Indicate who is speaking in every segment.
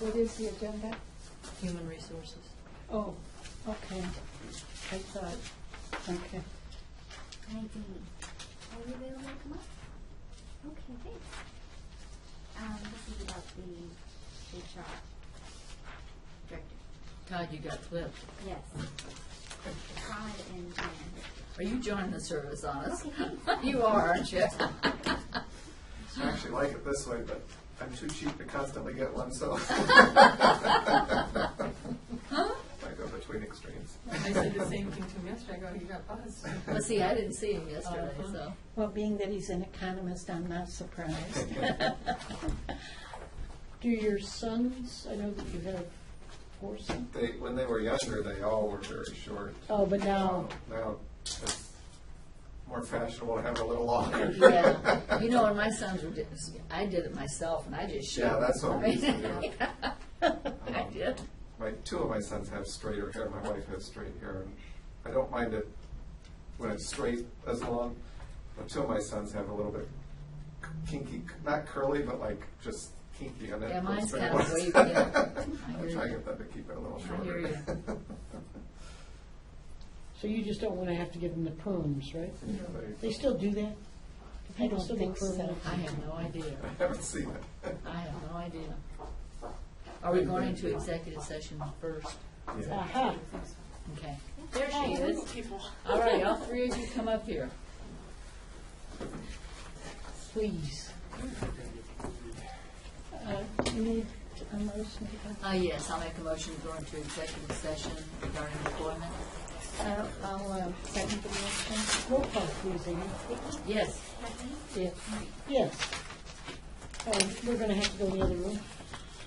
Speaker 1: What is the agenda?
Speaker 2: Human resources.
Speaker 1: Oh, okay. I thought, okay.
Speaker 3: I do. Are you available to come up? Okay, thanks. Um, this is about the HR director.
Speaker 2: Todd, you got flipped.
Speaker 3: Yes. Todd and Jan.
Speaker 2: Are you joining the service on us?
Speaker 3: Okay.
Speaker 2: You are, aren't you?
Speaker 4: I actually like it this way, but I'm too cheap to constantly get one, so. I go between extremes.
Speaker 5: I said the same thing to him yesterday, I go, you got buzzed.
Speaker 2: Well, see, I didn't see him yesterday,
Speaker 5: Uh-huh.
Speaker 2: so.
Speaker 1: Well, being that he's an economist, I'm not surprised. Do your sons, I know that you have four sons,
Speaker 4: They, when they were younger, they all were very short.
Speaker 1: oh, but now,
Speaker 4: Now, now it's more fashionable to have a little longer.
Speaker 2: Yeah, you know, when my sons were, di- I did it myself, and I just shaved.
Speaker 4: Yeah, that's what we used to do.
Speaker 2: I
Speaker 4: Uh-huh.
Speaker 2: did.
Speaker 4: My, two of my sons have straighter hair, my wife has straight hair, and I don't mind it when it's straight as long, but two of my sons have a little bit kinky, not curly, but like just kinky on it.
Speaker 2: Yeah, mine's
Speaker 4: Straight
Speaker 2: kinda
Speaker 4: ones.
Speaker 2: wavy, yeah. I hear
Speaker 4: I'm trying to
Speaker 2: you.
Speaker 4: get them to keep it a little
Speaker 2: I hear
Speaker 4: shorter.
Speaker 6: So you just don't want to have to give them the perms, right?
Speaker 4: Yeah, they-
Speaker 6: They still do that? Do
Speaker 1: I
Speaker 6: people
Speaker 1: don't
Speaker 6: still get
Speaker 1: think so.
Speaker 6: permanent?
Speaker 2: I have no idea.
Speaker 4: I haven't seen it.
Speaker 2: I have no idea. Are we going into executive session first?
Speaker 4: Yeah.
Speaker 6: Aha,
Speaker 2: Okay. There she is. All right, all three of you come up here.
Speaker 6: please.
Speaker 1: uh, you need a motion to go.
Speaker 2: Uh, yes, I'll make a motion to go into executive session regarding employment.
Speaker 1: I'll- I'll uh, second the motion.
Speaker 6: Roll call, please, Amy.
Speaker 2: Yes.
Speaker 3: Kathleen?
Speaker 1: Yeah.
Speaker 6: Yes. Um, We're going to have to go in the other room.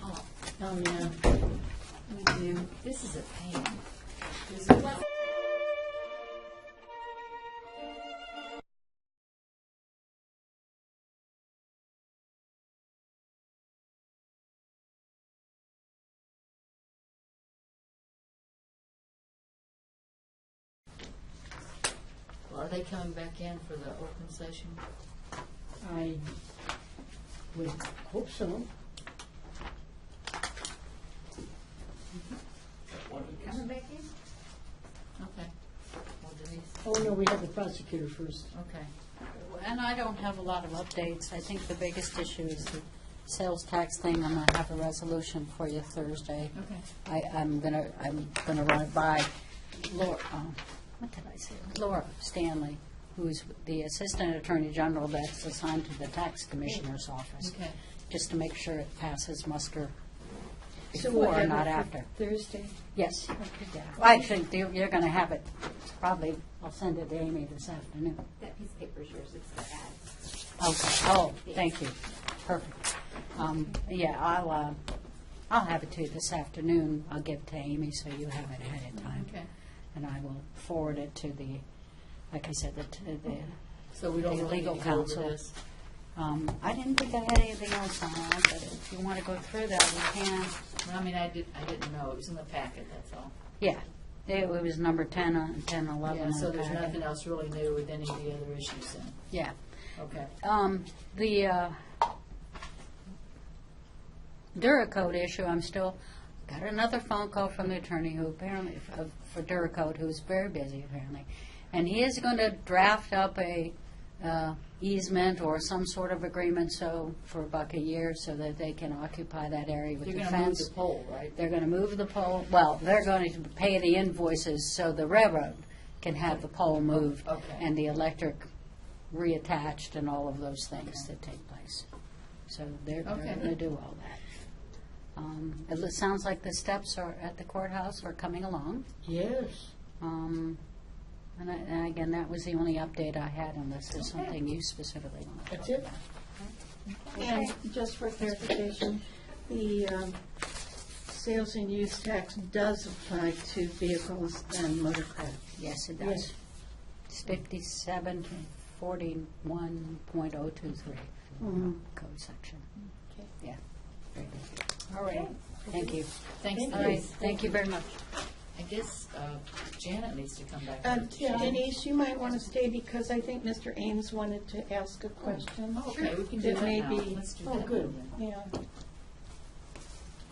Speaker 2: Oh,
Speaker 6: Oh, yeah.
Speaker 2: we do. This is a pain. This is Well, Are they coming back in for the open session?
Speaker 6: I would hope so.
Speaker 3: Coming back in?
Speaker 2: Okay. Well, Denise,
Speaker 6: Oh, no, we have the prosecutor first.
Speaker 2: okay.
Speaker 7: And I don't have a lot of updates. I think the biggest issue is the sales tax thing. I'm going to have a resolution for you Thursday.
Speaker 2: Okay.
Speaker 7: I, I'm going to, I'm going to run it by Laura, um, what did I say? Laura Stanley, who's the Assistant Attorney General that's assigned to the Tax Commissioner's Office.
Speaker 2: Okay.
Speaker 7: Just to make sure it passes muster
Speaker 1: So we'll
Speaker 7: before,
Speaker 1: have
Speaker 7: not
Speaker 1: it for
Speaker 7: after.
Speaker 1: Thursday?
Speaker 7: Yes. Yeah. I think you're going to have it, probably, I'll send it to Amy this afternoon.
Speaker 3: That piece of paper is yours, it's the ad.
Speaker 7: Okay, oh, thank you, perfect. Um, yeah, I'll, uh, I'll have it to you this afternoon, I'll give it to Amy so you have it ahead of time.
Speaker 2: Okay.
Speaker 7: And I will forward it to the, like I said, the, to the,
Speaker 2: So we don't
Speaker 7: The
Speaker 2: really
Speaker 7: legal
Speaker 2: need to go over
Speaker 7: counsel.
Speaker 2: this?
Speaker 7: um, I didn't think I had anything else on that, but if you wanna go through that, we can.
Speaker 2: Well, I mean, I did, I didn't know, it was in the packet, that's all.
Speaker 7: Yeah, it was number ten, on ten, eleven.
Speaker 2: Yeah,
Speaker 7: in
Speaker 2: so
Speaker 7: the
Speaker 2: there's
Speaker 7: packet.
Speaker 2: nothing else really new with any of the other issues then,
Speaker 7: Yeah.
Speaker 2: okay.
Speaker 7: Um, the, uh, Duracode issue, I'm still, got another phone call from the attorney who apparently, uh, for Duracode, who's very busy apparently. And he is going to draft up a, uh, easement or some sort of agreement so, for about a year, so that they can occupy that area with
Speaker 2: You're
Speaker 7: the
Speaker 2: gonna move
Speaker 7: fence.
Speaker 2: the pole, right?
Speaker 7: They're going to move the pole, well, they're going to pay the invoices so the railroad can have the pole moved
Speaker 2: Okay.
Speaker 7: and the electric reattached and all of those things that take place. So they're, they're
Speaker 2: Okay.
Speaker 7: going to do all that. Um, It loo- sounds like the steps are at the courthouse are coming along.
Speaker 6: Yes.
Speaker 7: Um, And I- and again, that was the only update I had unless there's something you specifically want to
Speaker 6: That's it?
Speaker 1: And just for clarification, the um, sales and use tax does apply to vehicles and motorcraft.
Speaker 7: Yes, it
Speaker 6: Yes.
Speaker 7: does. It's fifty-seven to forty-one point oh two three,
Speaker 6: Mm-hmm.
Speaker 7: code section.
Speaker 1: Okay.
Speaker 7: Yeah. Very good. All right, thank you.
Speaker 2: Thanks,
Speaker 7: All right,
Speaker 2: Denise.
Speaker 7: thank you very much.
Speaker 2: I guess uh, Janet needs to come back.
Speaker 1: Um,
Speaker 2: in.
Speaker 1: Denise, you might want to stay because I think Mr. Ames wanted to ask a question.
Speaker 2: Oh, Okay, we can do
Speaker 1: It
Speaker 2: that
Speaker 1: may
Speaker 2: now.
Speaker 1: be-
Speaker 2: Let's do
Speaker 6: Oh,
Speaker 2: that.
Speaker 6: good.
Speaker 1: Yeah.